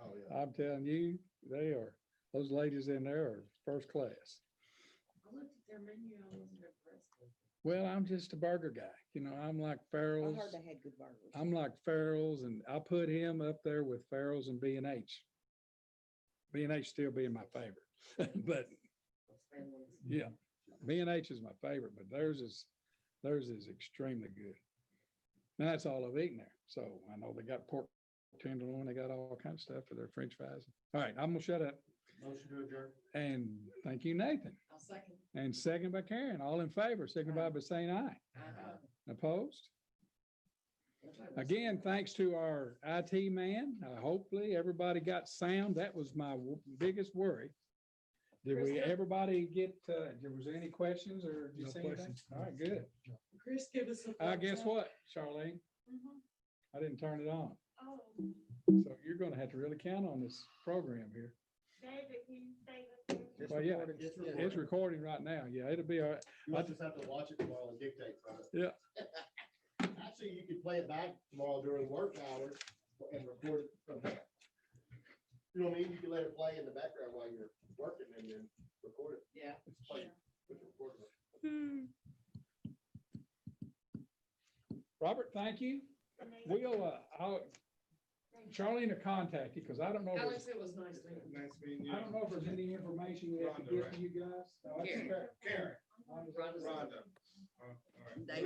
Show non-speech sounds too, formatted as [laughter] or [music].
Uh, I'm telling you, they are, those ladies in there are first class. I looked at their menu, I wasn't impressed with it. Well, I'm just a burger guy, you know, I'm like I Farrell's. heard they had good burgers. I'm like Farrell's and I put him up there with Farrell's and B and H. B and H still being my favorite, [laughs] but Those families. yeah, B and H is my favorite, but theirs is, theirs is extremely good. And that's all I've eaten there. So I know they got pork tenderloin, they got all kind of stuff for their french fries. All right, I'm gonna shut up Motion to adjourn. and thank you, Nathan. I'll second. And second by Karen, all in favor, signify by saying aye. Uh-huh. Opposed? That's what I was- Again, thanks to our IT man. Uh, Hopefully, everybody got sound. That was my w- biggest worry. Did we, Krista? everybody get, uh, there was any questions or did you No see anything? questions. All right, good. Chris, give us a. Uh, guess thumbs up. what, Charlene? Mhm. I didn't turn it on. Mm-hmm. Oh, So you're gonna have to really count on this program here. David, can you save us? It's Well, yeah, recording. It's It's recording. recording right now. Yeah, it'll be all right. You just have to watch it tomorrow and dictate from it. [laughs] Actually, you could play it back tomorrow during work hours and record it from there. You know what I mean? You can let it play in the background while you're working and then record it. Yeah. It's played with the recorder. Robert, thank you. We'll, uh, I'll, Charlene will contact you because I don't know. if it's- Alex, it was nice meeting you. Nice meeting you. I don't know if there's any information we have to Rhonda, give right? to you guys. No, that's Karen. fair. Karen, Rhonda's- Rhonda. Uh, all right. They